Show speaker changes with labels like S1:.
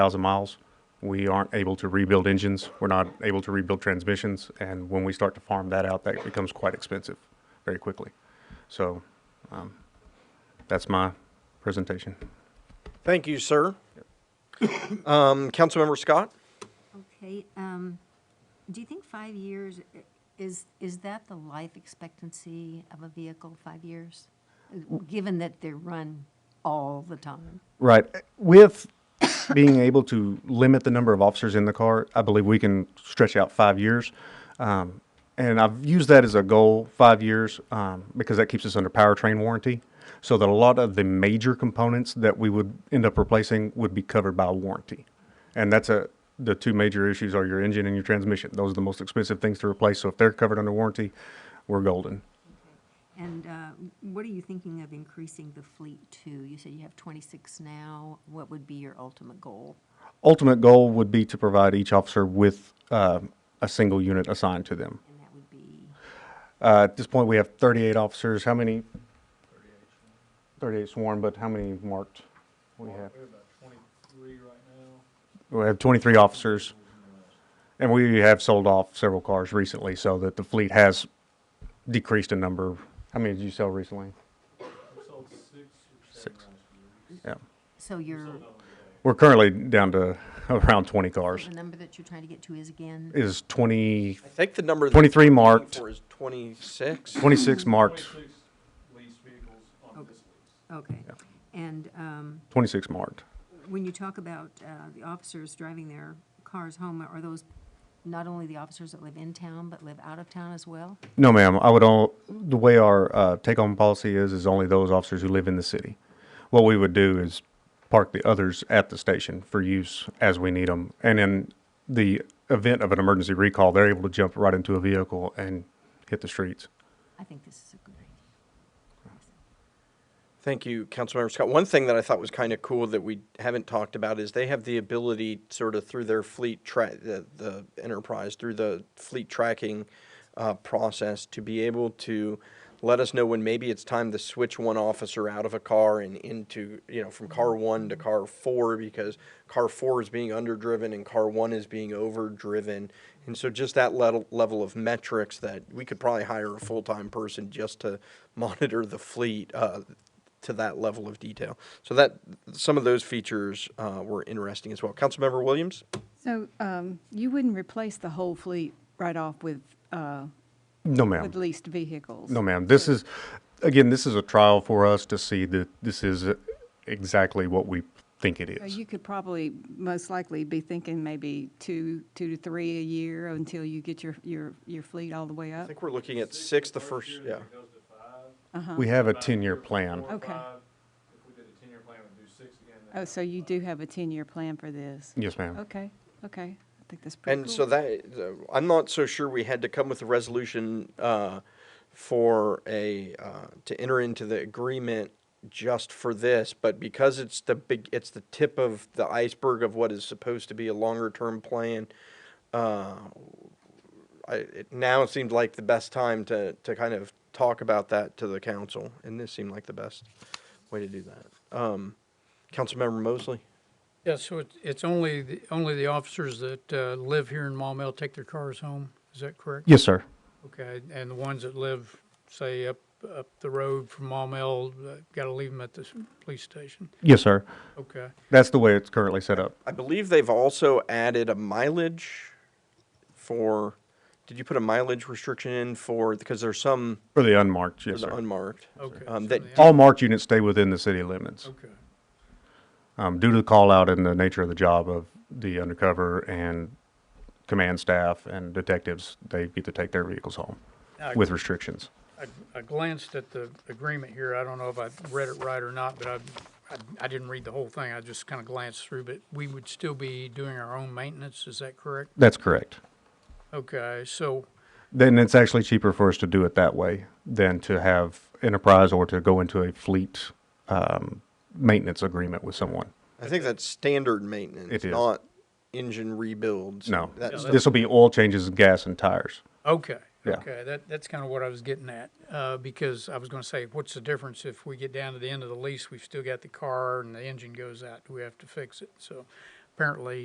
S1: thousand miles, we aren't able to rebuild engines, we're not able to rebuild transmissions, and when we start to farm that out, that becomes quite expensive very quickly. So, um, that's my presentation.
S2: Thank you, sir. Um, Councilmember Scott?
S3: Okay, um, do you think five years, i- is, is that the life expectancy of a vehicle, five years? Uh, Given that they run all the time?
S1: Right. With being able to limit the number of officers in the car, I believe we can stretch out five years. Um, and I've used that as a goal, five years, um, because that keeps us under powertrain warranty. So that a lot of the major components that we would end up replacing would be covered by warranty. And that's a, the two major issues are your engine and your transmission. Those are the most expensive things to replace. So if they're covered under warranty, we're golden.
S3: And uh, what are you thinking of increasing the fleet to? You said you have 26 now, what would be your ultimate goal?
S1: Ultimate goal would be to provide each officer with uh, a single unit assigned to them.
S3: And that would be,
S1: Uh, at this point, we have 38 officers. How many? 38 sworn, but how many marked? We have,
S4: We're about twenty-three right now.
S1: we have 23 officers. And we have sold off several cars recently so that the fleet has decreased in number. How many did you sell recently?
S4: We sold six or seven
S1: Six.
S4: last year.
S1: Yeah.
S3: so your,
S4: Sold out today.
S1: We're currently down to around 20 cars.
S3: the number that you're trying to get to is again?
S1: Is 20,
S2: I think the number. that
S1: 23
S2: you're looking
S1: marked.
S2: For is 26.
S1: 26 marked,
S4: Twenty-six leased vehicles on this lease.
S3: Okay. And um,
S1: 26 marked.
S3: when you talk about uh, the officers driving their cars home, are those not only the officers that live in town, but live out of town as well?
S1: No, ma'am. I would all, the way our uh, take-home policy is, is only those officers who live in the city. What we would do is park the others at the station for use as we need them. And in the event of an emergency recall, they're able to jump right into a vehicle and hit the streets.
S3: I think this is a good idea.
S2: Thank you, Councilmember Scott. One thing that I thought was kind of cool that we haven't talked about is they have the ability, sort of through their fleet track, the, the enterprise, through the fleet tracking uh, process, to be able to let us know when maybe it's time to switch one officer out of a car and into, you know, from car one to car four because car four is being underdriven and car one is being overdriven. And so just that level, level of metrics that we could probably hire a full-time person just to monitor the fleet, uh, to that level of detail. So that some of those features uh, were interesting as well. Councilmember Williams,
S5: So um, you wouldn't replace the whole fleet right off with, uh,
S1: No, ma'am.
S5: with leased vehicles?
S1: No, ma'am. This is, again, this is a trial for us to see that this is exactly what we think it
S5: So
S1: is.
S5: you could probably, most likely, be thinking maybe two, two to three a year until you get your, your, your fleet all the way
S2: I
S5: up?
S2: think we're looking at six the first,
S4: year,
S2: yeah.
S4: then it goes to five.
S1: We have a
S4: About
S1: ten-year
S4: year
S1: plan.
S4: four,
S5: uh-huh. Okay.
S4: five. If we did a ten-year plan, we'd do six again. then
S5: Oh, so you do have a 10-year plan for this?
S1: Yes, ma'am.
S5: Okay, okay. I think that's pretty cool.
S2: And so that, uh, I'm not so sure we had to come with a resolution uh, for a, uh, to enter into the agreement just for this, but because it's the big, it's the tip of the iceberg of what is supposed to be a longer-term plan, uh, I, it now seemed like the best time to, to kind of talk about that to the council, and this seemed like the best way to do that. Um, Councilmember Mosley?
S6: Yeah, so it's, it's only, the only the officers that uh, live here in Maumelle take their cars home, is that correct?
S1: Yes, sir.
S6: Okay, and the ones that live, say, up, up the road from Maumelle, got to leave them at the s- police station?
S1: Yes, sir.
S6: Okay,
S1: That's the way it's currently set up.
S2: I believe they've also added a mileage for, did you put a mileage restriction in for, because there's some
S1: For the unmarked,
S2: for
S1: yes,
S2: the
S1: sir.
S2: unmarked.
S6: okay.
S2: Um,
S6: so
S2: that-
S6: the-
S1: All marked units stay within the city limits.
S6: Okay,
S1: um, due to the call out and the nature of the job of the undercover and command staff and detectives, they get to take their vehicles home
S6: I-
S1: with restrictions.
S6: I- I glanced at the agreement here, I don't know if I read it right or not, but I, I- I didn't read the whole thing, I just kind of glanced through, but we would still be doing our own maintenance, is that correct?
S1: That's correct.
S6: Okay, so,
S1: Then it's actually cheaper for us to do it that way than to have enterprise or to go into a fleet um, maintenance agreement with someone.
S2: I think that's standard maintenance,
S1: It is.
S2: not engine rebuilds.
S1: No,
S2: That's
S1: this will be oil changes, gas, and tires.
S6: Okay,
S1: Yeah.
S6: okay, that, that's kind of what I was getting at, uh, because I was gonna say, what's the difference if we get down to the end of the lease, we've still got the car and the engine goes out, do we have to fix it? So apparently